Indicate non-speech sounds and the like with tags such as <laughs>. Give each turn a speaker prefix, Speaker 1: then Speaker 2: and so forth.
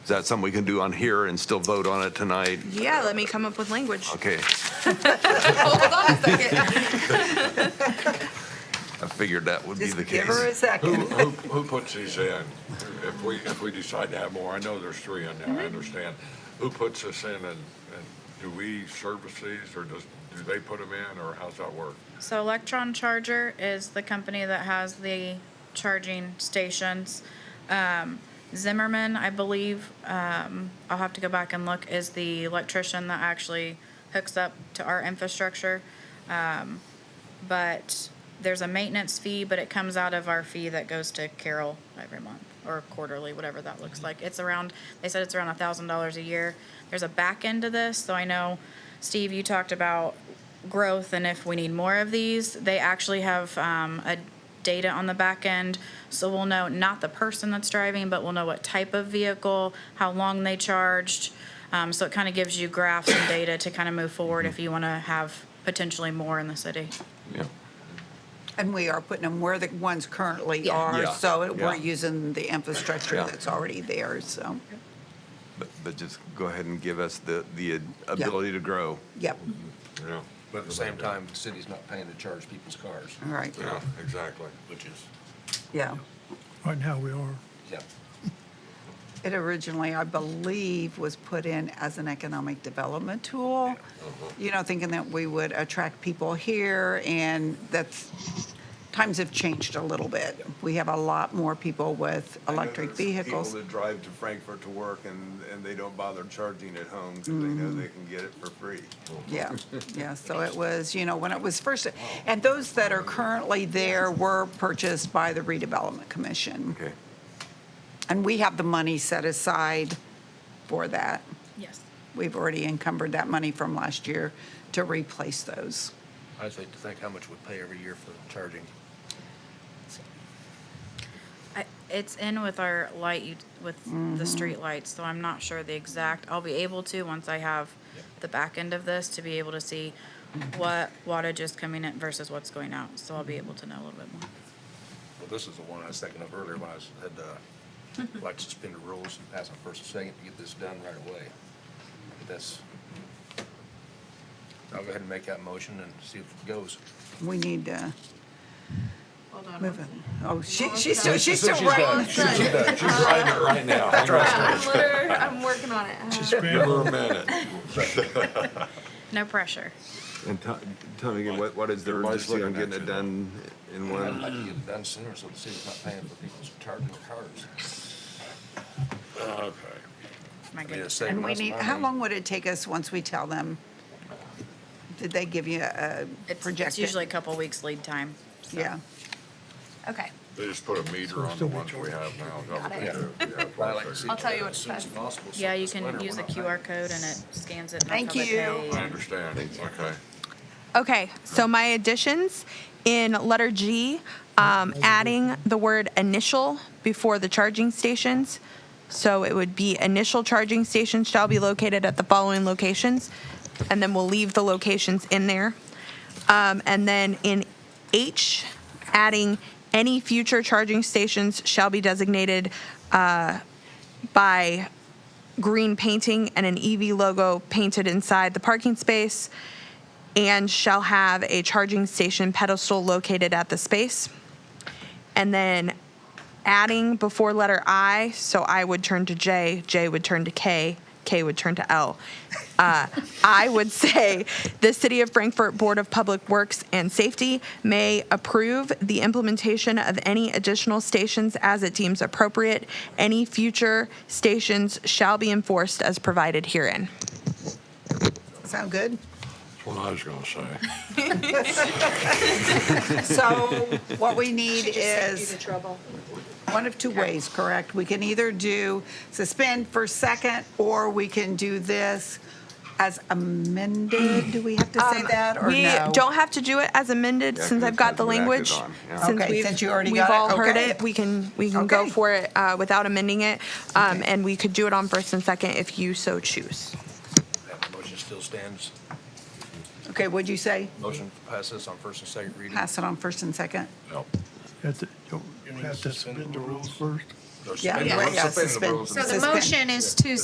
Speaker 1: Is that something we can do on here and still vote on it tonight?
Speaker 2: Yeah, let me come up with language.
Speaker 1: Okay,
Speaker 2: Hold on a second.
Speaker 1: I figured that would be
Speaker 3: Just
Speaker 1: the
Speaker 3: give her a
Speaker 1: case.
Speaker 3: second.
Speaker 4: Who, who, who puts these in? If we, if we decide to have more, I know there's three in there, I
Speaker 2: Mm-hmm.
Speaker 4: understand. Who puts this in and, and do we service these or does, do they put them in or how's that work?
Speaker 5: So Electron Charger is the company that has the charging stations. Um, Zimmerman, I believe, um, I'll have to go back and look, is the electrician that actually hooks up to our infrastructure. Um, but there's a maintenance fee, but it comes out of our fee that goes to Carroll every month or quarterly, whatever that looks like. It's around, they said it's around a thousand dollars a year. There's a back end to this, so I know, Steve, you talked about growth and if we need more of these. They actually have um, a data on the back end, so we'll know not the person that's driving, but we'll know what type of vehicle, how long they charged. Um, so it kind of gives you graphs and data to kind of move forward if you want to have potentially more in the city.
Speaker 1: Yeah.
Speaker 3: And we are putting them where the ones currently
Speaker 5: Yeah.
Speaker 3: are,
Speaker 1: Yeah,
Speaker 3: so it- we're
Speaker 1: yeah.
Speaker 3: using the infrastructure
Speaker 1: Yeah.
Speaker 3: that's already there, so,
Speaker 1: But, but just go ahead and give us the, the ability to grow.
Speaker 3: yep,
Speaker 4: Yeah,
Speaker 6: But at the same time, the city's not paying to charge people's cars,
Speaker 3: all right,
Speaker 4: yeah, exactly.
Speaker 6: which is,
Speaker 3: yeah.
Speaker 7: Right now, we are.
Speaker 6: yeah.
Speaker 3: It originally, I believe, was put in as an economic development tool,
Speaker 1: Uh-huh.
Speaker 3: you know, thinking that we would attract people here, and that's, times have changed a little bit. We have a lot more people with electric vehicles.
Speaker 8: People that drive to Frankfurt to work and, and they don't bother charging at home because they know they can get it for free.
Speaker 3: Yeah, yeah, so it was, you know, when it was first, and those that are currently there were purchased by the redevelopment commission.
Speaker 1: Okay.
Speaker 3: And we have the money set aside for that.
Speaker 5: Yes.
Speaker 3: We've already encumbered that money from last year to replace those.
Speaker 6: I just like to think how much we pay every year for charging.
Speaker 5: I, it's in with our light, ut- with
Speaker 3: Mm-hmm.
Speaker 5: the street lights, so I'm not sure the exact, I'll be able to, once I have the back end of this, to be able to see what wattage is coming in versus what's going out, so I'll be able to know a little bit more.
Speaker 6: Well, this is the one I was thinking of earlier when I said, uh, I'd like to suspend the rules and pass on first and second to get this done right away. But That's, I'll go ahead and make that motion and see if it goes.
Speaker 3: We need to
Speaker 2: Hold on.
Speaker 3: move
Speaker 2: one
Speaker 3: it.
Speaker 2: second.
Speaker 3: Oh, she, she's still, she's still
Speaker 6: She's
Speaker 3: writing.
Speaker 2: She's done.
Speaker 4: She's writing it right <laughs> now.
Speaker 2: I'm literally, I'm working on it. Uh,
Speaker 4: Give her a minute.
Speaker 5: No pressure.
Speaker 1: And tell, tell me again, what, what is the
Speaker 4: Everybody's
Speaker 1: urgency on
Speaker 4: looking at
Speaker 1: getting it
Speaker 4: you.
Speaker 1: done in
Speaker 6: I'd
Speaker 1: one?
Speaker 6: like to get it done sooner so the city's not paying for people's charging their cars.
Speaker 5: My
Speaker 6: mean, it's
Speaker 5: goodness.
Speaker 6: saving
Speaker 3: And we
Speaker 6: us
Speaker 3: need,
Speaker 6: money.
Speaker 3: how long would it take us once we tell them? Did they give you a
Speaker 5: It's, it's
Speaker 3: projected?
Speaker 5: usually a couple weeks lead time. so.
Speaker 3: Yeah,
Speaker 2: Okay,
Speaker 4: They just put a meter on the ones we have now. don't
Speaker 2: Got
Speaker 4: they?
Speaker 2: it.
Speaker 4: Yeah, yeah,
Speaker 6: I'd like to see
Speaker 2: I'll tell
Speaker 6: it
Speaker 2: you
Speaker 6: done
Speaker 2: what
Speaker 6: as
Speaker 2: it
Speaker 6: soon as
Speaker 2: says.
Speaker 6: possible, so
Speaker 5: Yeah, you
Speaker 6: this winter
Speaker 5: can
Speaker 6: we're
Speaker 5: use a
Speaker 6: not paying.
Speaker 5: QR code and it scans it. and
Speaker 3: Thank
Speaker 5: that's how they
Speaker 3: you.
Speaker 5: pay.
Speaker 4: I understand, okay.
Speaker 2: okay, so my additions in letter G, um, adding the word initial before the charging stations. So it would be initial charging stations shall be located at the following locations, and then we'll leave the locations in there. Um, and then in H, adding any future charging stations shall be designated, uh, by green painting and an EV logo painted inside the parking space and shall have a charging station pedestal located at the space. And then adding before letter I, so I would turn to J, J would turn to K, K would turn to L. Uh, <laughs> I would say the City of Frankfurt Board of Public Works and Safety may approve the implementation of any additional stations as it deems appropriate. Any future stations shall be enforced as provided herein.
Speaker 3: sound good?
Speaker 4: That's what I was gonna
Speaker 3: <laughs>
Speaker 4: say.
Speaker 3: So what we need is
Speaker 2: trouble.
Speaker 3: one of two ways, correct? We can either do suspend for second, or we can do this as amended. Do we have to say that, or no?
Speaker 2: Um, We don't have to do it as amended
Speaker 1: Yeah,
Speaker 2: since
Speaker 1: 'cause
Speaker 2: I've got
Speaker 1: that's
Speaker 2: the
Speaker 1: what we acted
Speaker 2: language.
Speaker 1: on, yeah.
Speaker 2: Since
Speaker 3: Okay,
Speaker 2: we've-
Speaker 3: since you already
Speaker 2: we've
Speaker 3: got it,
Speaker 2: all heard
Speaker 3: okay.
Speaker 2: it, we can we can go
Speaker 3: Okay.
Speaker 2: for it uh, without amending it, um,
Speaker 3: Okay.
Speaker 2: and we could do it on first and second if you so choose.
Speaker 6: That motion still stands.
Speaker 3: Okay, what'd you say?
Speaker 6: Motion to pass this on first and second reading.
Speaker 3: Pass it on first and second?
Speaker 4: Nope.
Speaker 7: At the, don't-
Speaker 6: You need
Speaker 7: have
Speaker 6: to
Speaker 7: to
Speaker 6: suspend
Speaker 7: submit
Speaker 6: the
Speaker 7: the rules
Speaker 6: rules?
Speaker 7: first.
Speaker 9: They're
Speaker 3: Yeah,
Speaker 9: spending-
Speaker 3: yeah,
Speaker 6: Suspend the
Speaker 3: suspend-
Speaker 6: rules
Speaker 10: So the
Speaker 3: suspend.
Speaker 10: motion is to